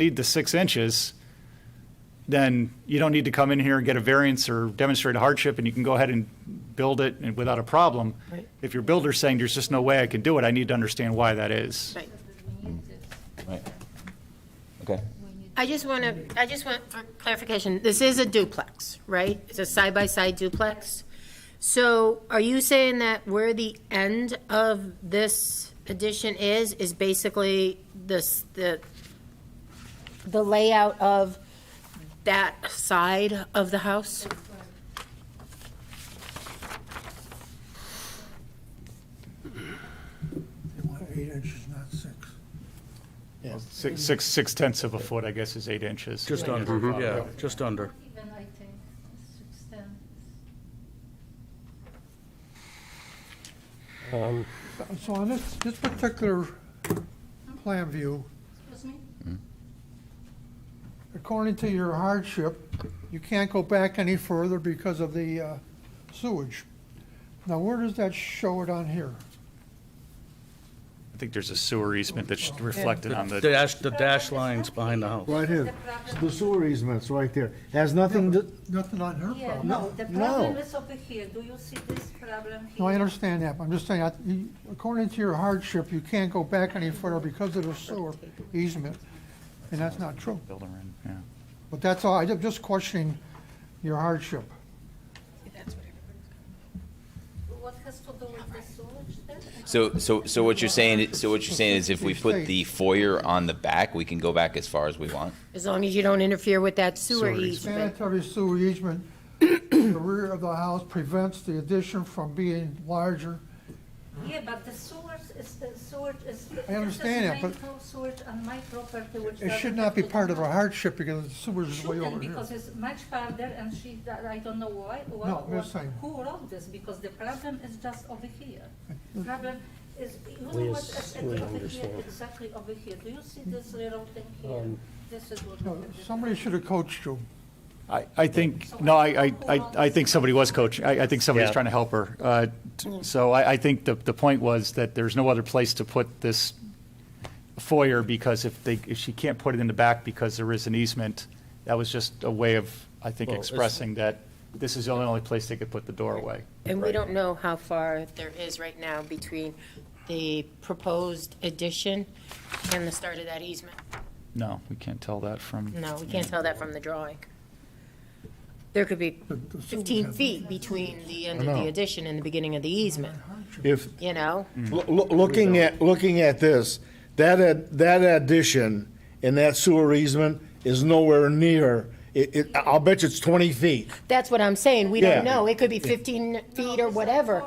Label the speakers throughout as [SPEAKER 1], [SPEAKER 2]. [SPEAKER 1] need the six inches, then you don't need to come in here and get a variance or demonstrate a hardship, and you can go ahead and build it and- without a problem.
[SPEAKER 2] Right.
[SPEAKER 1] If your builder's saying, there's just no way I can do it, I need to understand why that is.
[SPEAKER 2] Right.
[SPEAKER 3] Mm. Right. Okay.
[SPEAKER 2] I just want to, I just want for clarification, this is a duplex, right? It's a side-by-side duplex. So are you saying that where the end of this addition is, is basically this, the, the layout of that side of the house?
[SPEAKER 4] They want eight inches, not six.
[SPEAKER 1] Six, six, six tenths of a foot, I guess, is eight inches.
[SPEAKER 5] Just under, yeah, just under.
[SPEAKER 6] Even I think six ten.
[SPEAKER 4] So on this, this particular plan view,
[SPEAKER 6] Excuse me?
[SPEAKER 4] according to your hardship, you can't go back any further because of the uh, sewage. Now, where does that show it on here?
[SPEAKER 1] I think there's a sewer easement that's reflected on
[SPEAKER 5] The
[SPEAKER 1] the,
[SPEAKER 5] dash, the dash lines behind the house.
[SPEAKER 7] Right here, the sewer easement's right there, has nothing to,
[SPEAKER 4] Nothing on her
[SPEAKER 6] Yeah,
[SPEAKER 4] problem.
[SPEAKER 6] no,
[SPEAKER 7] No,
[SPEAKER 6] the
[SPEAKER 7] no.
[SPEAKER 6] problem is over here. Do you see this problem here?
[SPEAKER 4] No, I understand that, but I'm just saying, I- you- according to your hardship, you can't go back any further because of the sewer easement, and that's not true.
[SPEAKER 1] builder in, yeah.
[SPEAKER 4] But that's all, I'm just questioning your hardship.
[SPEAKER 6] What has to do with the sewage then?
[SPEAKER 8] So, so, so what you're saying, so what you're saying is if we put the foyer on the back, we can go back as far as we want?
[SPEAKER 2] As long as you don't interfere with that sewer easement.
[SPEAKER 4] sanitary sewer easement, in the rear of the house prevents the addition from being larger.
[SPEAKER 6] Yeah, but the sewers is, the sewage is.
[SPEAKER 4] I understand that, but-
[SPEAKER 6] There's no sewage on my property which
[SPEAKER 4] It should
[SPEAKER 6] doesn't
[SPEAKER 4] not
[SPEAKER 6] have
[SPEAKER 4] be
[SPEAKER 6] to do
[SPEAKER 4] part of our
[SPEAKER 6] nothing.
[SPEAKER 4] hardship because the sewer is way
[SPEAKER 6] Shouldn't
[SPEAKER 4] over here.
[SPEAKER 6] because it's much farther and she, that- I don't know why, wha-
[SPEAKER 4] we're
[SPEAKER 6] wha-
[SPEAKER 4] saying-
[SPEAKER 6] who wrote this, because the problem is just over here.
[SPEAKER 4] Mm.
[SPEAKER 6] Problem is, you know what, it's over here, exactly over here, do you see this little thing here?
[SPEAKER 5] Um,
[SPEAKER 6] This is what.
[SPEAKER 4] No, Somebody should have coached you.
[SPEAKER 1] I, I think, no, I, I, I I think somebody was coaching, I, I think somebody's
[SPEAKER 5] Yeah.
[SPEAKER 1] trying to help her. Uh, t- So I, I think the, the point was that there's no other place to put this foyer because if they, if she can't put it in the back because there is an easement, that was just a way of, I think,
[SPEAKER 5] Well, it's-
[SPEAKER 1] expressing that this is the only, only place they could put the doorway.
[SPEAKER 2] And we don't know how far there is right now between the proposed addition and the start of that easement.
[SPEAKER 1] No, we can't tell that from.
[SPEAKER 2] No, we can't tell that from the drawing. There could be 15 feet between the end of the addition and the beginning of the easement,
[SPEAKER 7] if,
[SPEAKER 2] you know?
[SPEAKER 7] loo- loo- looking at, looking at this, that, ad- that addition and that sewer easement is nowhere near, it, it, I'll bet you it's twenty feet.
[SPEAKER 2] That's what I'm saying, we don't
[SPEAKER 7] Yeah.
[SPEAKER 2] know, it could be 15 feet or whatever.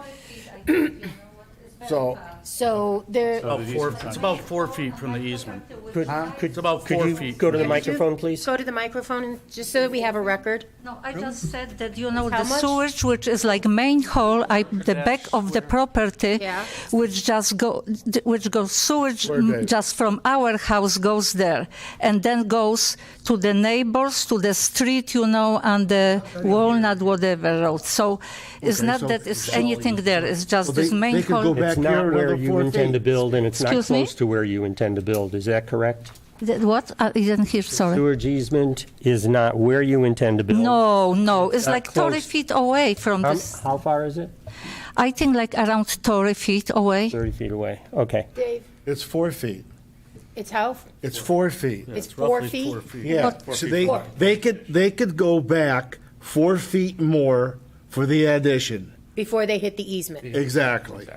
[SPEAKER 7] So-
[SPEAKER 2] So there,
[SPEAKER 5] About Oh, four, it's about four feet from the easement.
[SPEAKER 9] Could, could,
[SPEAKER 5] It's about
[SPEAKER 9] could
[SPEAKER 5] four
[SPEAKER 9] you
[SPEAKER 5] feet.
[SPEAKER 9] go to
[SPEAKER 2] Could
[SPEAKER 9] the
[SPEAKER 2] you-
[SPEAKER 9] microphone, please?
[SPEAKER 2] go to the microphone, and just so that we have a record.
[SPEAKER 6] No, I just said that, you know,
[SPEAKER 2] How
[SPEAKER 6] the
[SPEAKER 2] much?
[SPEAKER 6] sewage, which is like main hole, I, the back of the property,
[SPEAKER 2] Yeah.
[SPEAKER 6] which just go, d- which goes sewage,
[SPEAKER 7] Where
[SPEAKER 6] mm,
[SPEAKER 7] they-
[SPEAKER 6] just from our house goes there, and then goes to the neighbors, to the street, you know, and the Walnut, whatever road. So it's
[SPEAKER 7] Okay,
[SPEAKER 6] not
[SPEAKER 7] so-
[SPEAKER 6] that it's
[SPEAKER 7] so
[SPEAKER 6] anything there, it's just
[SPEAKER 7] Well,
[SPEAKER 6] this
[SPEAKER 7] they-
[SPEAKER 6] main
[SPEAKER 7] they could go
[SPEAKER 6] hole.
[SPEAKER 7] back
[SPEAKER 9] It's not
[SPEAKER 7] here
[SPEAKER 9] where
[SPEAKER 7] another
[SPEAKER 9] you
[SPEAKER 7] four
[SPEAKER 9] intend to
[SPEAKER 7] feet.
[SPEAKER 9] build, and it's not
[SPEAKER 6] Excuse me?
[SPEAKER 9] close to where you intend to build, is that correct?
[SPEAKER 6] That- What? I didn't hear, sorry.
[SPEAKER 9] Sewer easement is not where you intend to build.
[SPEAKER 6] No, no, it's
[SPEAKER 9] Not
[SPEAKER 6] like 30
[SPEAKER 9] close.
[SPEAKER 6] feet away from
[SPEAKER 9] How,
[SPEAKER 6] this,
[SPEAKER 9] how far is it?
[SPEAKER 6] I think like around 30 feet away.
[SPEAKER 9] 30 feet away, okay.
[SPEAKER 2] Dave,
[SPEAKER 7] It's four feet,
[SPEAKER 2] it's how,
[SPEAKER 7] it's four feet.
[SPEAKER 2] it's four
[SPEAKER 5] Roughly
[SPEAKER 2] feet?
[SPEAKER 5] four feet.
[SPEAKER 7] Yeah,
[SPEAKER 6] But-
[SPEAKER 7] so they,
[SPEAKER 2] Four.
[SPEAKER 7] they could, they could go back four feet more for the addition,
[SPEAKER 2] Before they hit the easement.
[SPEAKER 7] exactly.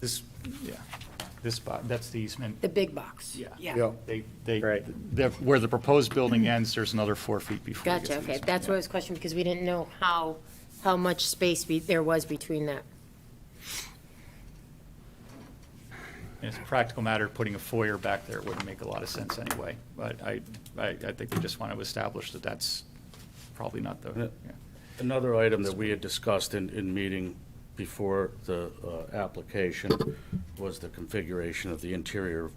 [SPEAKER 1] This, yeah, this, bo- that's the easement.
[SPEAKER 2] The big box.
[SPEAKER 7] Yeah.
[SPEAKER 1] They, they,
[SPEAKER 9] Right.
[SPEAKER 1] they're- where the proposed building ends, there's another four feet before. you get to the
[SPEAKER 2] Gotcha, okay,
[SPEAKER 1] easement.
[SPEAKER 2] that's what I was questioning, because we didn't know how, how much space be- there was between that.
[SPEAKER 1] It's a practical matter, putting a foyer back there wouldn't make a lot of sense anyway, but I, I, I think we just want to establish that that's probably not the, yeah.
[SPEAKER 5] Another item that we had discussed in, in meeting before the uh, application was the configuration of the interior of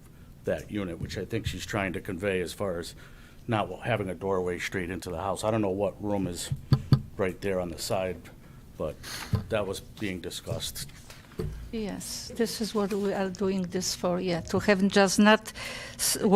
[SPEAKER 5] that unit, which I think she's trying to convey as far as not having a doorway straight into the house. I don't know what room is right there on the side, but that was being discussed.
[SPEAKER 6] Yes, this is what we are doing this for, yeah, to have just not s-